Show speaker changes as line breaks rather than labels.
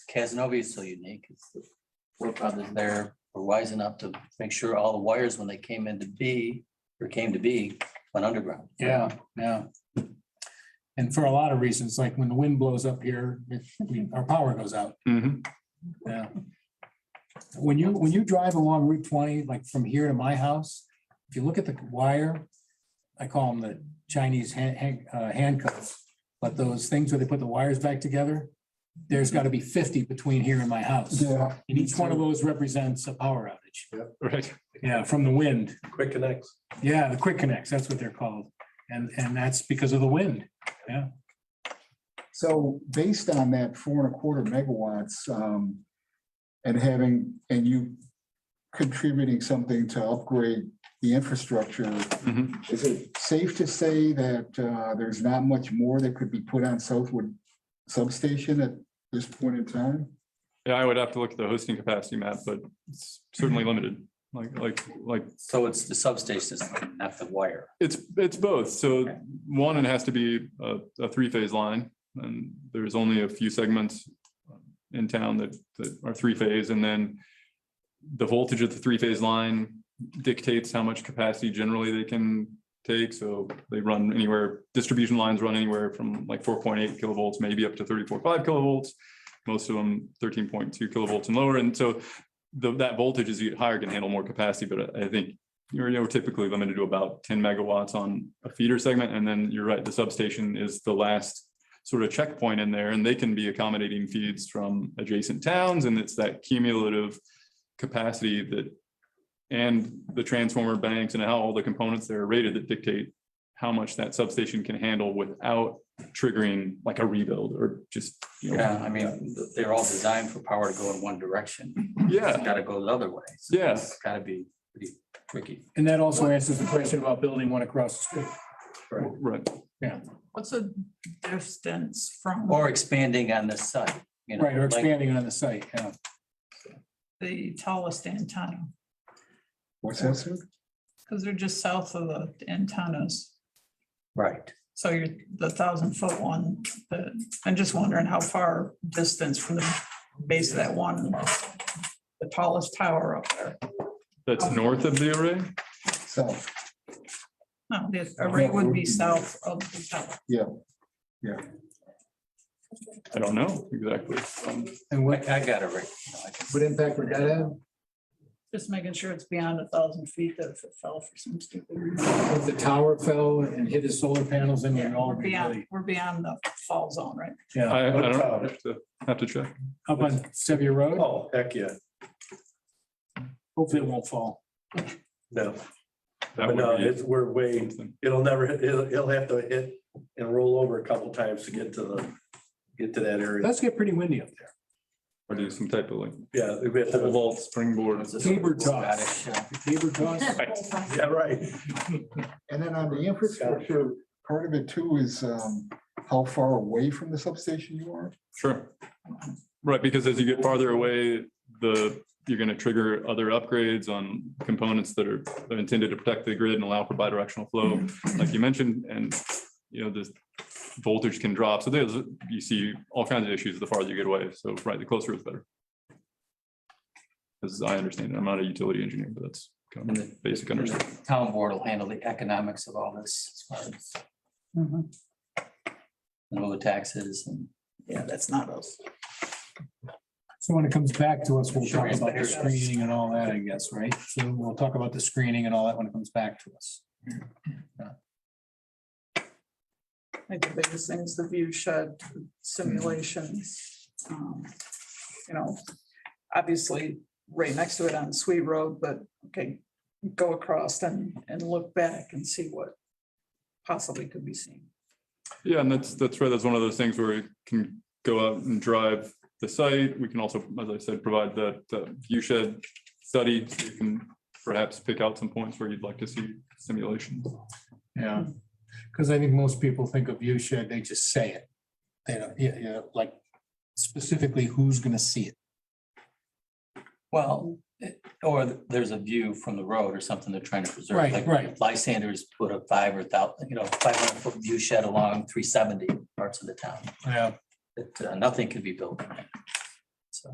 Casanova is so unique. It's the Four brothers there were wise enough to make sure all the wires, when they came into be, or came to be, went underground.
Yeah, yeah. And for a lot of reasons, like when the wind blows up here, it- we- our power goes out.
Mhm.
Yeah. When you, when you drive along Route twenty, like from here to my house, if you look at the wire, I call them the Chinese hand- hand- uh, handcuffs, but those things where they put the wires back together, there's got to be fifty between here and my house.
Yeah.
And each one of those represents a power outage.
Right.
Yeah, from the wind.
Quick connects.
Yeah, the quick connects, that's what they're called. And, and that's because of the wind.
So based on that four and a quarter megawatts, um, and having, and you contributing something to upgrade the infrastructure,
Mhm.
is it safe to say that, uh, there's not much more that could be put on Southwood substation at this point in time?
Yeah, I would have to look at the hosting capacity map, but it's certainly limited, like, like, like,
So it's the substation, it's not the wire.
it's, it's both. So one, it has to be a, a three-phase line, and there's only a few segments in town that, that are three-phase, and then the voltage of the three-phase line dictates how much capacity generally they can take, so they run anywhere, distribution lines run anywhere from like four point eight kilovolts, maybe up to thirty-four, five kilovolts, most of them thirteen point two kilovolts and lower, and so the, that voltage as you get higher can handle more capacity, but I I think you're, you're typically limited to about ten megawatts on a feeder segment, and then you're right, the substation is the last sort of checkpoint in there, and they can be accommodating feeds from adjacent towns, and it's that cumulative capacity that and the transformer banks and how all the components that are rated that dictate how much that substation can handle without triggering like a rebuild or just, you know,
Yeah, I mean, they're all designed for power to go in one direction. It's
yeah,
Got to go the other way. So
Yeah.
It's got to be pretty tricky.
And that also answers the question about building one across the street.
right.
What's the distance from
Or expanding on this side. you know,
Right, or
like-
expanding on the site, yeah.
the tallest antenna?
What's that, sir?
Because they're just south of the antennas.
Right.
So you're the thousand foot one, but I'm just wondering how far distance from the base of that one, the tallest tower up there.
That's north of the array.
So,
No, the array would be south of the tower.
I don't know exactly. Um,
And
I
what,
I got it right. you know, I can-
What impact would that have?
Just making sure it's beyond a thousand feet that if it fell for some stupid reason.
if the tower fell and hit his solar panels and we'd all
We're
be
beyond,
really,
we're beyond the fall zone, right?
yeah.
I, I don't know. I have to, have to check.
Up on Sevier Road,
Oh, heck yeah.
hopefully it won't fall.
No,
That
but no,
would be
it's, we're way,
something.
it'll never, hit- it'll, it'll have to hit and roll over a couple times to get to the, get to that area.
Let's get pretty windy up there.
Or do some type of like
Yeah, we have
pole
to,
vault springboard.
It's a
Tabor talk.
Scottish, uh,
Tabor toss,
yeah, right.
and then on the infrastructure, part of it too is, um, how far away from the substation you are?
Sure. Right, because as you get farther away, the, you're going to trigger other upgrades on components that are are intended to protect the grid and allow for bidirectional flow, like you mentioned, and, you know, the voltage can drop. So there's, you see all kinds of issues the farther you get away. So, right, the closer is better. As I understand it, I'm not a utility engineer, but that's kind
and
of
the-
basic
and
understanding.
the Town board will handle the economics of all this. as far as, you know, the taxes and.
Yeah, that's not us.
so when it comes back to us, we'll talk about the screening and all that, I guess, right? So we'll talk about the screening and all that when it comes back to us.
I think the biggest things, the view shed simulations. um, You know, obviously right next to it on Sweet Road, but okay, go across and, and look back and see what possibly could be seen.
Yeah, and that's, that's right. That's one of those things where we can go out and drive the site. We can also, as I said, provide that uh, view shed study. so You can perhaps pick out some points where you'd like to see simulations.
Yeah, because I think most people think of view shed, they just say it. They don't, yeah, yeah, like specifically who's gonna see it.
Well, it- or th- there's a view from the road or something they're trying to preserve.
Right,
like
right.
Lysanders put a five or thou, you know, five hundred foot view shed along three seventy parts of the town.
Yeah.
That uh, nothing could be built.